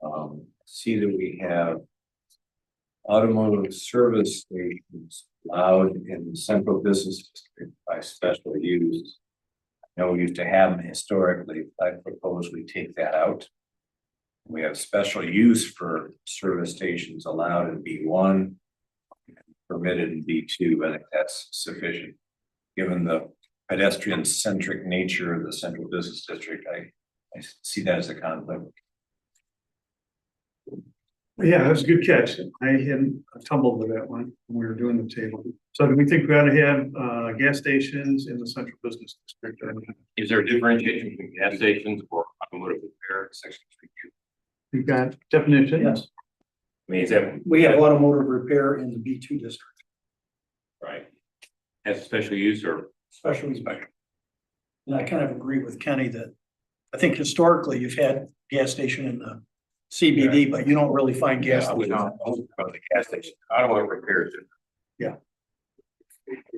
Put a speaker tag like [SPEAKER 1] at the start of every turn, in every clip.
[SPEAKER 1] Um, see that we have. Automotive service stations allowed in the central business district by special use. I know we used to have them historically, I propose we take that out. We have special use for service stations allowed in B one. Permitted in B two, I think that's sufficient. Given the pedestrian centric nature of the central business district, I, I see that as a conflict.
[SPEAKER 2] Yeah, that was a good catch. I hadn't tumbled with that one when we were doing the table. So do we think we ought to have uh gas stations in the central business district? I
[SPEAKER 3] Is there a differentiation between gas stations or automotive repair sections?
[SPEAKER 2] We've got definitions.
[SPEAKER 4] Yes.
[SPEAKER 3] I mean, is that
[SPEAKER 4] We have automotive repair in the B two district,
[SPEAKER 3] right? As a special use or
[SPEAKER 4] special use. And I kind of agree with Kenny that, I think historically you've had gas station in the CBD, but you don't really find gas.
[SPEAKER 3] gas? I would not know about the gas station, automotive repair is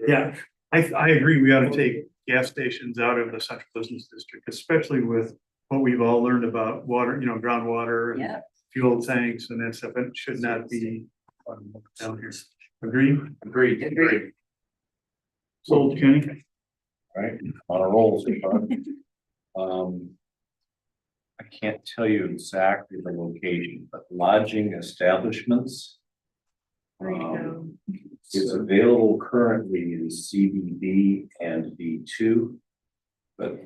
[SPEAKER 2] Yeah, I I agree. We ought to take gas stations out of the central business district, especially with what we've all learned about water, you know, groundwater and
[SPEAKER 5] Yeah,
[SPEAKER 2] fuel tanks and that stuff. It should not be um, down here. Agree?
[SPEAKER 3] Agreed,
[SPEAKER 5] Agreed.
[SPEAKER 2] Sold, Kenny?
[SPEAKER 1] right? On a roll so far. Um. I can't tell you exactly the location, but lodging establishments.
[SPEAKER 5] way to
[SPEAKER 1] um,
[SPEAKER 5] go.
[SPEAKER 1] Is available currently in CBD and B two. But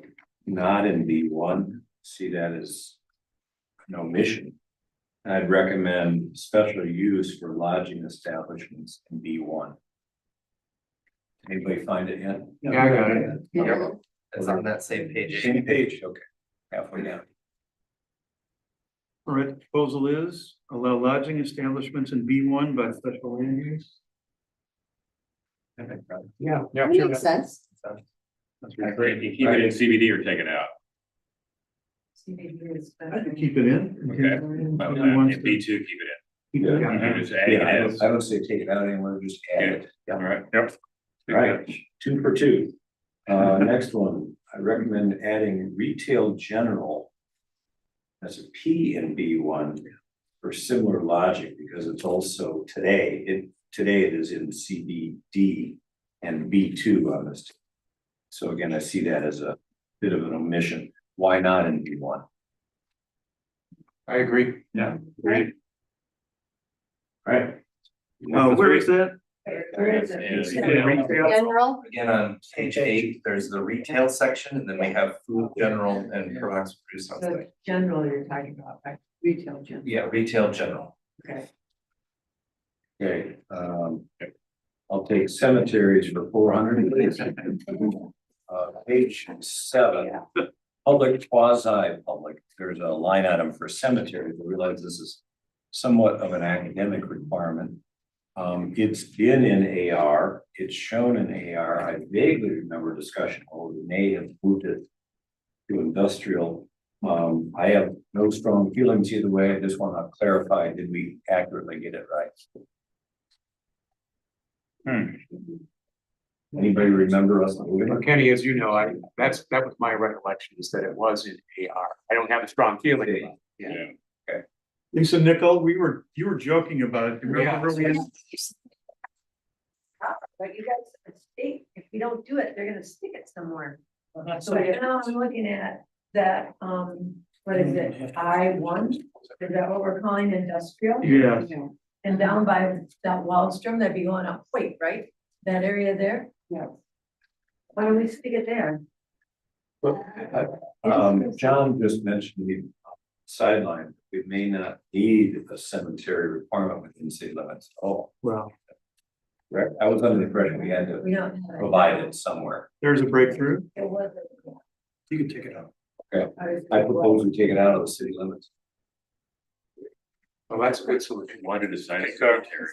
[SPEAKER 1] not in B one, see that as. An omission. And I'd recommend special use for lodging establishments in B one. Anybody find it yet?
[SPEAKER 4] Yeah, I got
[SPEAKER 1] it.
[SPEAKER 5] Yeah.
[SPEAKER 6] It's on that same page.
[SPEAKER 1] Same page, okay, halfway down.
[SPEAKER 2] All right, proposal is allow lodging establishments in B one by special land use.
[SPEAKER 4] Yeah.
[SPEAKER 5] That makes sense.
[SPEAKER 2] That's
[SPEAKER 3] You
[SPEAKER 2] right.
[SPEAKER 3] keep it in CBD or take it out.
[SPEAKER 2] I could keep it in.
[SPEAKER 3] Okay. Well, and B
[SPEAKER 2] Keep
[SPEAKER 3] two, keep it
[SPEAKER 2] it
[SPEAKER 3] in.
[SPEAKER 2] in.
[SPEAKER 3] You just add it
[SPEAKER 1] Yeah, I would-
[SPEAKER 3] as,
[SPEAKER 1] I would say take it out anywhere, just add it,
[SPEAKER 3] all right? Yep.
[SPEAKER 1] Right. two for two. Uh, next one, I recommend adding retail general. As a P in B one for similar logic, because it's also today, it, today it is in CBD and B two on this. So again, I see that as a bit of an omission, why not in B one?
[SPEAKER 3] I agree. Yeah. Great.
[SPEAKER 1] Right,
[SPEAKER 3] Oh,
[SPEAKER 2] Uh, where is that?
[SPEAKER 5] Where is it?
[SPEAKER 3] Yeah.
[SPEAKER 5] General,
[SPEAKER 6] Again, on page eight, there's the retail section, and then we have food, general, and products produced on
[SPEAKER 7] So
[SPEAKER 6] site.
[SPEAKER 7] general you're talking about, right? retail general,
[SPEAKER 6] Yeah, retail, general.
[SPEAKER 7] okay.
[SPEAKER 1] okay, um. I'll take cemeteries for four hundred, please. Uh, page seven,
[SPEAKER 5] yeah,
[SPEAKER 1] public quasi-public, there's a line item for cemeteries, I realize this is somewhat of an academic requirement. Um, it's been in AR, it's shown in AR, I vaguely remember discussion, or we may have moved it to industrial. Um, I have no strong feelings either way, I just want to clarify, did we accurately get it right? Anybody remember us?
[SPEAKER 8] Well, Kenny, as you know, I, that's, that was my recollection is that it was in AR. I don't have a strong feeling about it.
[SPEAKER 3] Yeah.
[SPEAKER 2] Lisa Nickel, we were, you were joking about it.
[SPEAKER 8] Yeah.
[SPEAKER 2] Remember when-
[SPEAKER 7] But you guys, are state, if we don't do it, they're gonna stick it somewhere. So right now I'm looking at that, um, what is it, I one, is that what we're calling industrial?
[SPEAKER 2] Yeah,
[SPEAKER 7] And down by that Wallstrom, that'd be going up, wait, right? That area there?
[SPEAKER 5] Yeah.
[SPEAKER 7] Why don't we stick it there?
[SPEAKER 1] Um, John just mentioned the sideline, we may not need a cemetery requirement within city limits at all.
[SPEAKER 2] well,
[SPEAKER 1] Right, I was under the impression we had to
[SPEAKER 7] We don't. have it.
[SPEAKER 1] provide it somewhere.
[SPEAKER 2] there's a breakthrough.
[SPEAKER 7] It wasn't.
[SPEAKER 4] You can take it out.
[SPEAKER 7] I was-
[SPEAKER 1] I propose we take it out of the city limits.
[SPEAKER 8] Well, that's a good solution.
[SPEAKER 3] Why did the sign it? Cemetery.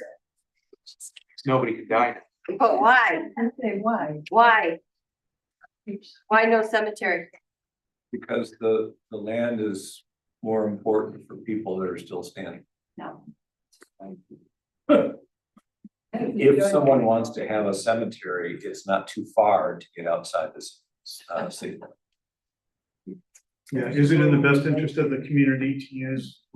[SPEAKER 8] Nobody could die. now.
[SPEAKER 5] but why,
[SPEAKER 7] I'd say why?
[SPEAKER 5] why, why no cemetery?
[SPEAKER 1] Because the, the land is more important for people that are still standing.
[SPEAKER 5] No.
[SPEAKER 1] If someone wants to have a cemetery, it's not too far to get outside this, uh, city.
[SPEAKER 2] Yeah, is it in the best interest of the community to use